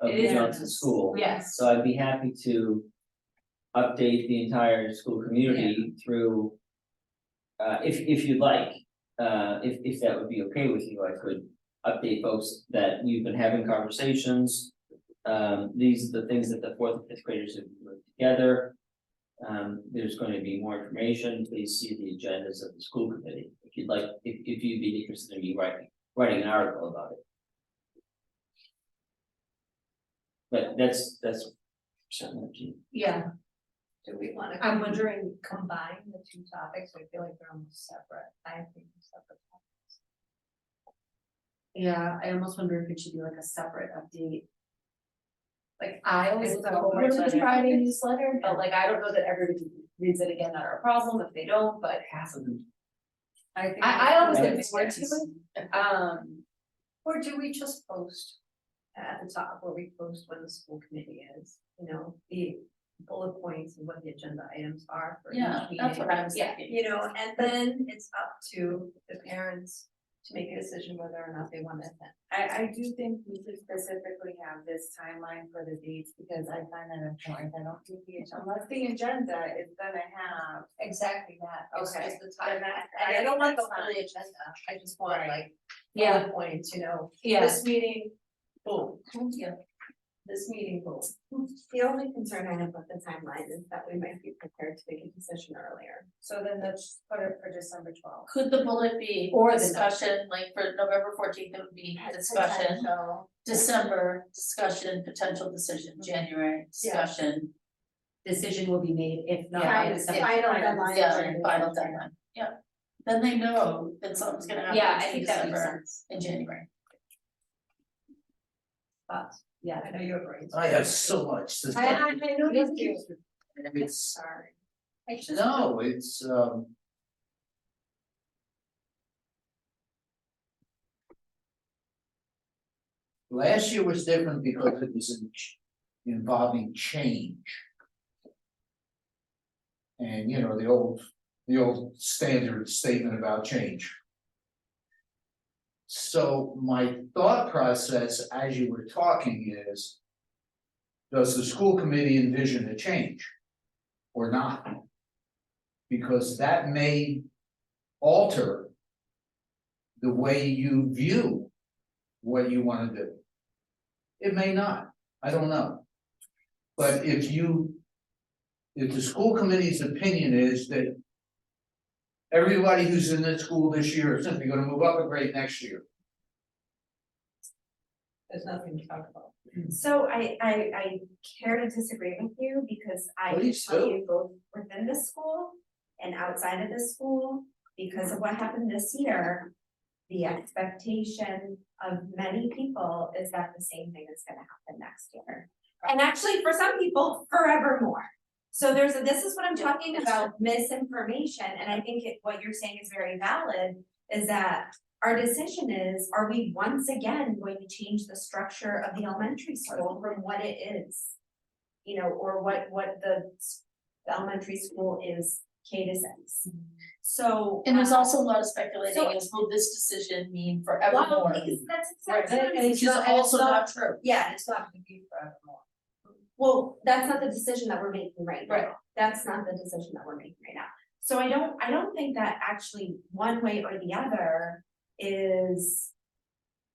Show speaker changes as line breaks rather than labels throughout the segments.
of
It
the
is.
Johnson School.
Yes.
So I'd be happy to update the entire school community through. Uh, if, if you'd like, uh, if, if that would be okay with you, I could update folks that we've been having conversations. Um, these are the things that the fourth and fifth graders have put together. Um, there's going to be more information, please see the agendas of the school committee, if you'd like, if, if you'd be interested in me writing, writing an article about it. But that's, that's something that you.
Yeah,
Do we wanna?
I'm
com-
wondering-
Combine the two topics, I feel like they're almost separate, I think they're separate. topics.
yeah, I almost wonder if it should be like a separate update. Like I always
It's
look at
a
the
whole
Homework
bunch
Friday
of
Friday
it.
newsletter, but like I don't know that everybody reads it again, not our problem if they don't, but
Half of them.
I think.
I I always look
it's
forward to
yes.
it. Um,
Or do we just post at the top where we post when the school committee is, you know, the bullet points and what the agenda items are for each
Yeah,
meeting?
that's what I was
Yeah,
thinking.
you know, and then it's up to the parents to make a decision whether or not they want to attend.
I, I do think we should specifically have this timeline for the dates, because I find that important, I don't think the, unless the agenda is gonna have.
Exactly that, it's
Okay.
just the time,
Then that's-
and I don't want the
that's
whole
fine.
agenda, I just want
Right.
like
yeah,
bullet points, you know,
yeah,
this meeting, boom.
Yeah.
This meeting, boom.
The only concern I have with the timeline is that we might be prepared to make a decision earlier, so then let's put it for December twelfth.
Could the bullet be
Or the
discussion, like for November fourteenth, it would be discussion, December, discussion, potential decision,
Mm-hmm.
January, discussion.
decision will be made if not.
Yeah.
it's something-
Final deadline.
Yeah, and final deadline, yeah. Then they know that something's gonna happen.
Yeah, I
in
think that makes
December
sense,
and January.
Thoughts?
yeah.
I know you're brainstorming.
I have so much to
I, I, I know
Me
this
too.
is,
It's,
Sorry.
I just.
no, it's, um. Last year was different because it was in ch- involving change. And, you know, the old, the old standard statement about change. So my thought process as you were talking is. Does the school committee envision a change? or not. Because that may alter the way you view what you wanna do. It may not, I don't know. But if you, if the school committee's opinion is that everybody who's in the school this year is simply gonna move up a grade next year,
There's nothing to talk about.
So I, I, I care to disagree with you because I can
Please
tell
do.
you both within the school and outside of the school, because of what happened this year, the expectation of many people is that the same thing is gonna happen next year. And actually, for some people, forevermore. So there's, a this is what I'm talking about, misinformation, and I think it, what you're saying is very valid, is that our decision is, are we once again going to change the structure of the elementary school from what it is? You know, or what, what the, s- the elementary school is K to six. So.
And there's
um,
also a lot of speculating,
So-
is will this decision mean
Well,
forevermore?
because that's
Right,
exactly what I'm
which is
saying.
also not true.
Yeah,
It's not gonna be forevermore.
well, that's not the decision that we're making right now.
Right.
That's not the decision that we're making right now. So I don't, I don't think that actually one way or the other is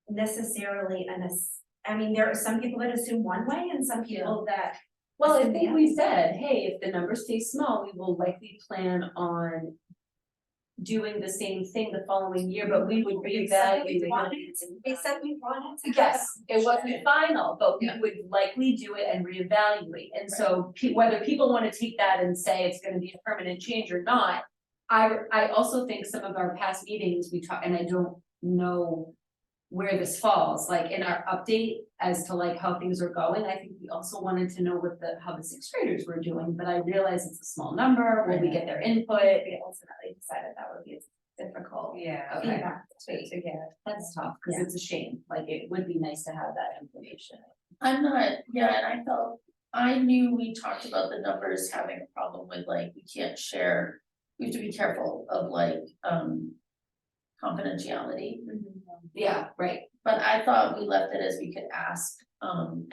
necessarily an, ass- I mean, there are some people that assume one way and some people that.
Well, I
assume the
think
other.
we said, hey, if the number stays small, we will likely plan on. Doing the same thing the following year, but we would
We said we
reevaluate.
wanted, we said we wanted to. have
Yes, it
discussion.
wasn't final, but we would likely do it and reevaluate, and so pe- whether people wanna take that and say it's gonna be a permanent change or not. I I also think some of our past meetings, we talk, and I don't know where this falls, like in our update as to like how things are going, I think we also wanted to know what the, how the sixth graders were doing, but I realize it's a small number, will we get their input?
But we ultimately decided that would be a difficult
Yeah.
Okay.
feedback to, to get.
That's tough, cause it's a shame, like it would be nice to have that information.
I'm not, yeah, and I felt, I knew we talked about the numbers having a problem with like, we can't share. We have to be careful of like, um, confidentiality,
Yeah, right.
but I thought we left it as we could ask, um,